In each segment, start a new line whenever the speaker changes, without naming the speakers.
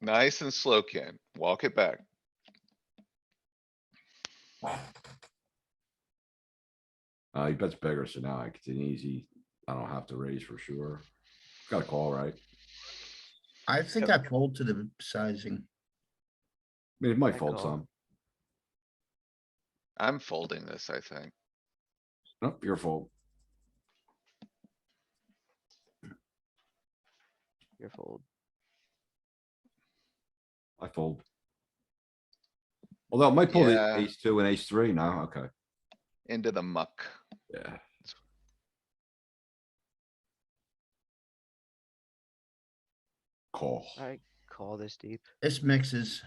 Nice and slow, Ken. Walk it back.
Uh, he bets bigger, so now it's an easy, I don't have to raise for sure. Got a call, right? I
I think I fold to the sizing.
mean, it might
I
fold
call.
some.
I'm folding this, I think.
Nope, your fault.
Your fold.
I fold. Although it might pull
Yeah.
the ace two and ace three now, okay,
Into the muck.
yeah. Call.
I call this deep.
This mixes.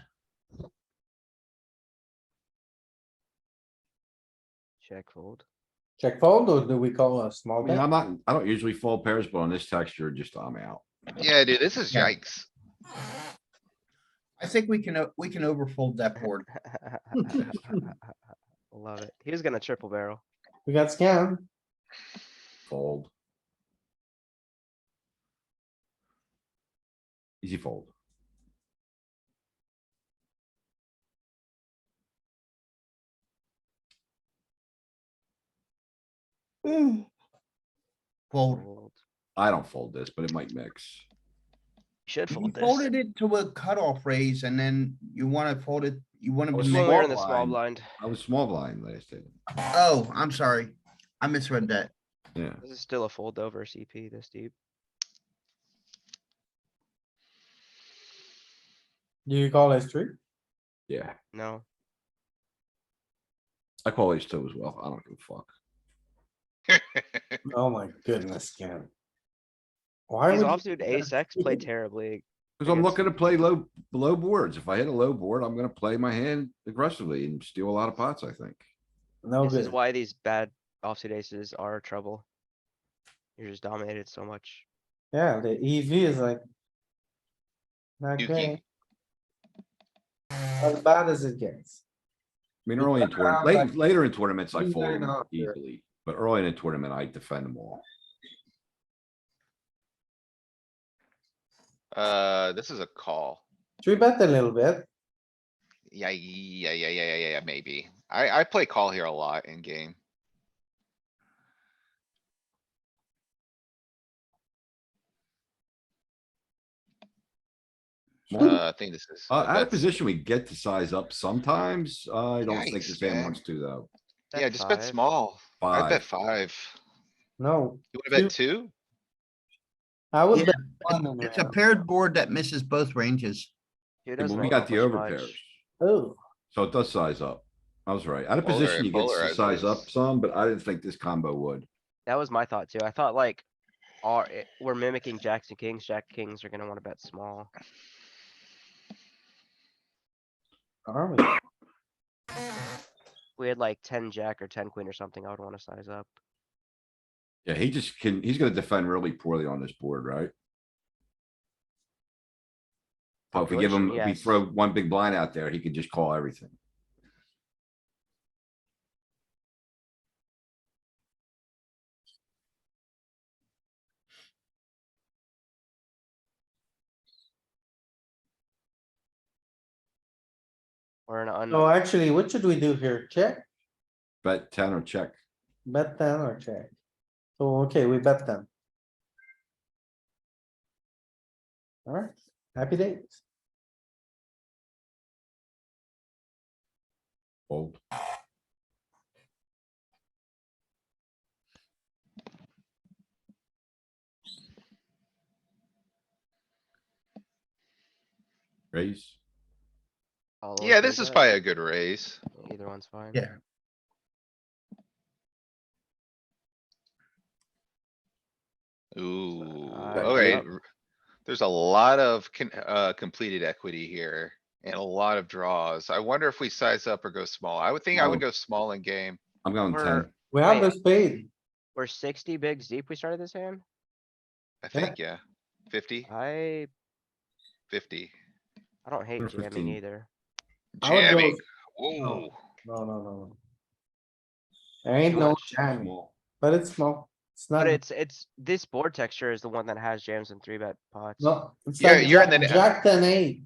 Check fold.
Check fold or do we call a
I
small
mean,
bet?
I'm not, I don't usually fold pairs, but on this texture, just I'm out.
Yeah, dude, this is
Yeah.
yikes.
I think we can, o- we can overfold that board.
Love it. He was gonna triple barrel.
We got scammed.
Fold. Easy fold.
Fold.
Fold.
I don't fold this, but it might mix.
Should
You
fold this.
folded it to a cutoff raise and then you wanna fold it, you wanna
I
be,
was
This one we
small
were
mixed.
in the small blind.
I was small blind last time.
oh, I'm sorry. I misread that.
Yeah,
This is still a fold over CP this deep.
Do you call a three?
yeah.
No,
I call ace two as well. I don't give a fuck.
Oh my goodness, Ken. Why
his
would,
offsuit ace X played terribly.
Cause
I
I'm
guess-
looking to play low, low boards. If I hit a low board, I'm gonna play my hand aggressively and steal a lot of pots, I think.
no
This is
Oh, good.
why these bad offsuit aces are trouble. You're just dominated so much.
Yeah, the EV is like. Not
Yuki.
good. As bad as it gets.
I mean, early in
around
tournament,
like
late, later in tournaments, I fold
29
them
out here.
easily, but early in a tournament, I defend them all.
Uh, this is a call.
Three bet a little bit.
Yeah, yeah, yeah, yeah, yeah, yeah, maybe. I, I play call here a lot in game.
Small-
Uh, I think this is.
Uh, out of
that's-
position, we get to size up sometimes. I don't think
Yikes,
this hand
man.
wants to though.
Yeah, just bet
five.
small. I bet
Five,
five.
No,
You wanna bet two?
I would
Yeah,
bet one. on
It's a
that.
paired board that misses both ranges.
He
Yeah, but
doesn't
we
fold
got
that
the
much
over
much.
pairs.
Oh,
So it does size up. I was right. Out of
Polar-
position, you get to
polarized
size up
is-
some, but I didn't think this combo would.
That was my thought too. I thought like, are, eh, we're mimicking jacks and kings. Jack kings are gonna wanna bet small.
are we?
We had like ten jack or ten queen or something. I would wanna size up.
Yeah, he just can, he's gonna defend really poorly on this board, right? But if we give him, if we
Unfortunately,
throw one big blind out there, he could just call everything.
We're in an
Oh,
No,
unknown.
actually, what should we do here? Check,
Bet ten or check.
bet ten or check? Oh, okay, we bet ten. Alright, happy days.
Fold. Raise.
all the way
Yeah,
through
this is
that.
probably a good raise.
Either one's fine.
Yeah.
Ooh,
Uh,
alright.
yep.
There's a lot of con- uh, completed equity here and a lot of draws. I wonder if we size up or go small. I would think I would
No.
go small in game.
I'm going
We're-
ten.
We have a
Wait.
spade.
We're sixty bigs deep. We started this hand.
I
Yeah.
think, yeah. Fifty,
I,
fifty.
I don't hate
We're
jamming
15.
either.
I would go-
Jamming. Whoa.
No, no, no, no. There ain't no
much.
jamming, but it's small. It's not,
But it's, it's, this board texture is the one that has jams and three bet pots.
no. it's
Yeah,
like
you're in
jack-
the-
Jack ten eight.